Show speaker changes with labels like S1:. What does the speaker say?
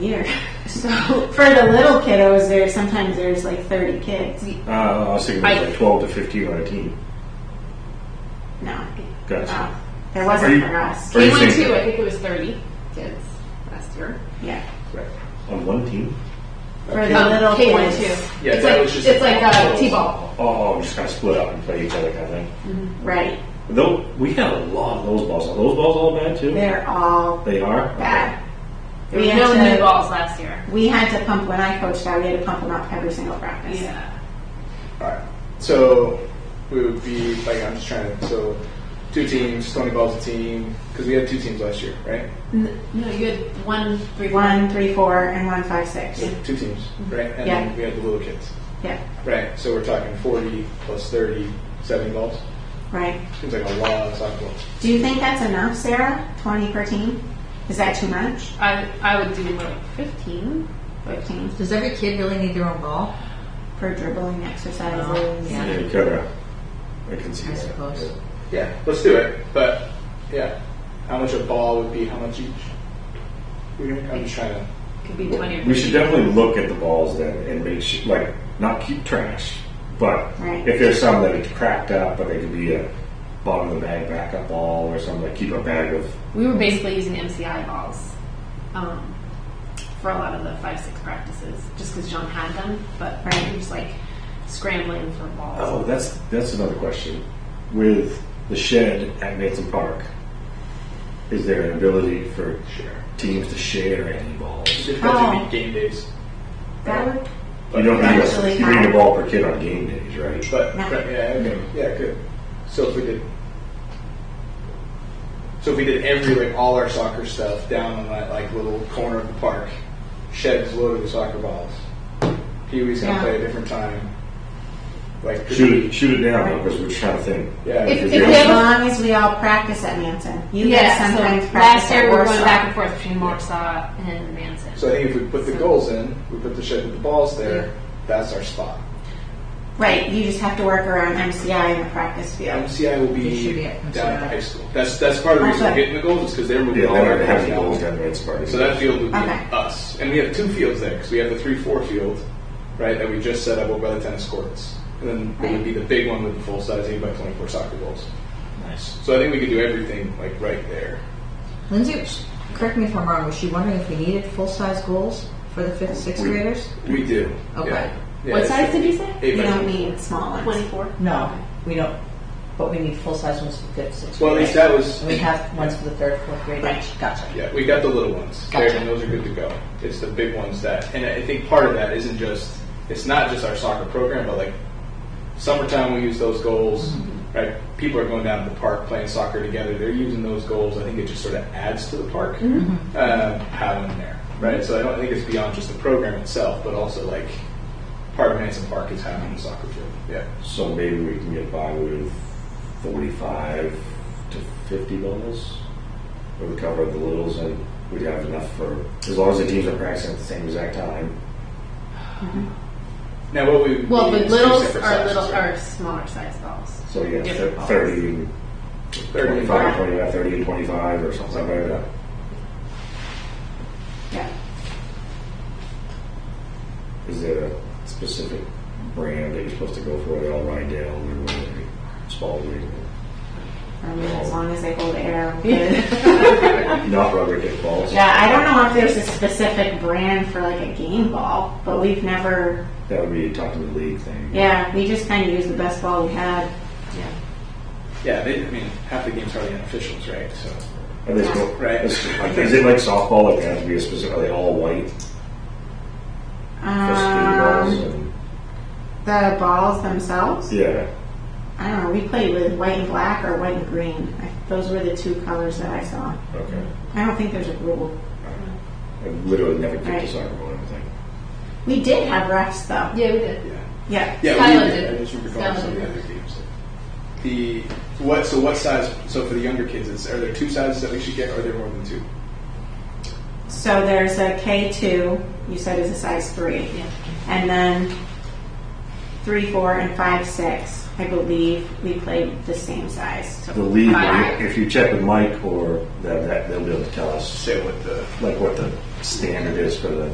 S1: year. So for the little kiddos, there sometimes there's like 30 kids.
S2: Uh, I was thinking it was
S1: I-
S2: like 12 to 15 on a team.
S1: No,
S3: Ah.
S2: Gotcha.
S1: there
S2: Are
S1: wasn't
S2: you-
S1: for us.
S2: Are
S3: K
S2: you
S3: one
S2: saying-
S3: two, I think it was thirty kids last year.
S1: Yeah,
S2: Right. On one team?
S1: for the
S3: Um,
S1: little
S3: K one
S1: kids.
S3: two.
S4: Yeah,
S3: It's
S4: that
S3: like-
S4: was just
S3: It's
S4: a
S3: like
S4: ball.
S3: a T-ball.
S2: Oh, oh, just kind of split up and play each other kind of thing.
S1: Right,
S2: Though we had a lot of those balls. Are those balls all bad too?
S1: they're all
S2: They are.
S1: bad.
S3: There
S1: We
S3: were
S1: had
S3: no
S1: to-
S3: new balls last year.
S1: We had to pump when I coached out. We had to pump them up every single practice.
S3: Yeah.
S4: Alright, so we would be, like, I'm just trying to, so two teams, 20 balls a team, because we had two teams last year, right?
S3: No, you had one three
S1: One, three, four, and one, five, six.
S4: So two teams, right? And
S1: Yeah.
S4: then we had the little kids.
S1: Yeah,
S4: Right, so we're talking 40 plus 30, 70 balls.
S1: right.
S4: Seems like a lot of soccer balls.
S1: Do you think that's enough, Sarah? 20 per team? Is that too much?
S3: I I would do like fifteen.
S1: 15
S5: Does every kid really need their own ball?
S1: for dribbling
S3: Oh,
S1: exercises.
S5: Yeah.
S2: Yeah, you could. uh, I can see
S5: I
S2: that.
S5: suppose.
S2: Yeah.
S4: Yeah, let's do it. But yeah, how much a ball would be? How much each? We're gonna, I'm just trying to.
S3: Could be twenty. or
S2: We should
S3: 15.
S2: definitely look at the balls then and make sure, like, not keep trash, but
S1: Right.
S2: if there's some that are cracked up, but they could be a bottom of the bag backup ball or something, like keep a bag of.
S3: We were basically using MCI balls um, for a lot of the five six practices, just because John had them. But
S1: Right.
S3: we were just like scrambling for balls.
S2: Oh, that's that's another question. With the shed at Mason Park, is there an ability for
S4: Share.
S2: teams to share any balls?
S4: It
S1: Oh.
S4: oh. game days,
S1: That would
S2: You don't need
S1: Actually,
S2: a, you need
S1: not.
S2: a ball per kid on game days, right?
S4: but
S1: Yeah.
S4: yeah, okay, yeah, good. So if we did, so if we did every like all our soccer stuff down on that like little corner of the park, sheds loaded with soccer balls. Pee Wee's gonna
S1: Yeah.
S4: play a different time. Like
S2: shoot it, shoot it down because we're trying to think.
S4: Yeah.
S3: If-
S2: Because
S3: if
S2: we
S3: we
S2: all-
S1: As long as we all practice at Manson. You guys
S3: yeah.
S1: sometimes
S3: So
S1: practice
S3: last year
S1: at
S3: we were going
S1: Warsaw.
S3: back and forth between Warsaw and Manson.
S4: So I think if we put the goals in, we put the shed with the balls there. That's our spot.
S1: Right, you just have to work around MCI in the practice
S4: Yeah,
S1: field.
S4: MCI will
S5: It should be
S4: be
S5: at
S4: down at the
S5: MCI.
S4: high school. That's that's part of the reason we're
S1: Okay.
S4: hitting the goals is because they're moving
S2: yeah,
S4: all
S2: they're not
S4: our
S2: gonna have the
S4: goals
S2: goals
S4: down.
S2: at Mason Park.
S4: So that field would be
S1: Okay.
S4: us, and we have two fields there because we have the three four field, right? That we just set up over by the tennis courts, and then it would be the big one with the full size eight by twenty four soccer goals.
S2: nice.
S4: So I think we could do everything like right there.
S5: Lindsay, correct me if I'm wrong, was she wondering if we needed full-size goals for the fifth, sixth
S2: We-
S5: graders?
S4: We do.
S5: Okay.
S4: Yeah. Yeah,
S3: what
S4: it's
S3: size did you say?
S4: Eight
S1: You
S4: by
S1: don't
S4: 20.
S1: need small ones.
S3: Twenty four.
S6: No, we don't, but we need full-size ones for fifth, sixth
S4: Well,
S6: grade.
S4: at least that was.
S6: And we have ones for the third, fourth grade each, gotcha.
S4: Yeah, we got the little ones,
S6: Gotcha.
S4: There, and those are good to go. It's the big ones that, and I think part of that isn't just it's not just our soccer program, but like summertime we use those goals,
S3: Mm-hmm.
S4: right? People are going down to the park playing soccer together. They're using those goals. I think it just sort of adds to the park
S3: Mm-hmm.
S4: um, having them there, right? So I don't think it's beyond just the program itself, but also like part of Manson Park is having a soccer field. Yeah,
S2: So maybe we can get by with forty-five to fifty balls. We would cover the littles and we'd have enough for, as long as the teams are practicing at the same exact time.
S4: now what we would
S3: Well,
S4: need
S3: the
S4: is two
S3: littles
S4: separate
S3: are
S4: sizes,
S3: little
S4: right?
S3: are smaller size balls.
S2: So yeah,
S3: Different
S2: thir-
S3: balls.
S2: thirty,
S4: They're gonna be
S2: twenty-five, twenty-five, thirty and twenty-five or something like that.
S1: Yeah.
S2: Is there a specific brand that you're supposed to go for? They all ride down or whatever, Spalding,
S1: I mean, as long as they hold air, I'm good.
S2: not rubber kick balls.
S1: yeah, I don't know if there's a specific brand for like a game ball, but we've never.
S2: That would be talking to the league thing.
S1: Yeah, we just kind of used the best ball we had.
S4: Yeah, they, I mean half the games are the unofficials, right? So.
S2: Are they still,
S4: Right.
S2: Is, is it like softball? Like, they have to be a specific, are they all white? For speed balls
S1: Um,
S2: and,
S1: the balls themselves.
S2: yeah.
S1: I don't know. We played with white and black or white and green. I, those were the two colors that I saw.
S2: Okay.
S1: I don't think there's a rule.
S2: I literally never kicked a
S1: Right.
S2: soccer ball or anything.
S1: We did have refs though.
S3: Yeah, we did.
S4: Yeah.
S1: Yeah.
S4: Yeah,
S3: Skylar
S4: we,
S3: did.
S4: I just remember going
S3: Skylar
S4: to some of the
S3: did.
S4: other games. The what? So what size? So for the younger kids, is are there two sizes that we should get, or are there more than two?
S1: So there's a K2, you said is a size 3. And then 3, 4, and 5, 6, I believe we played the same size.
S2: The league,
S3: Alright.
S2: if you check with Mike or that, that they'll be able to tell us
S4: Say what the
S2: like what the standard is for the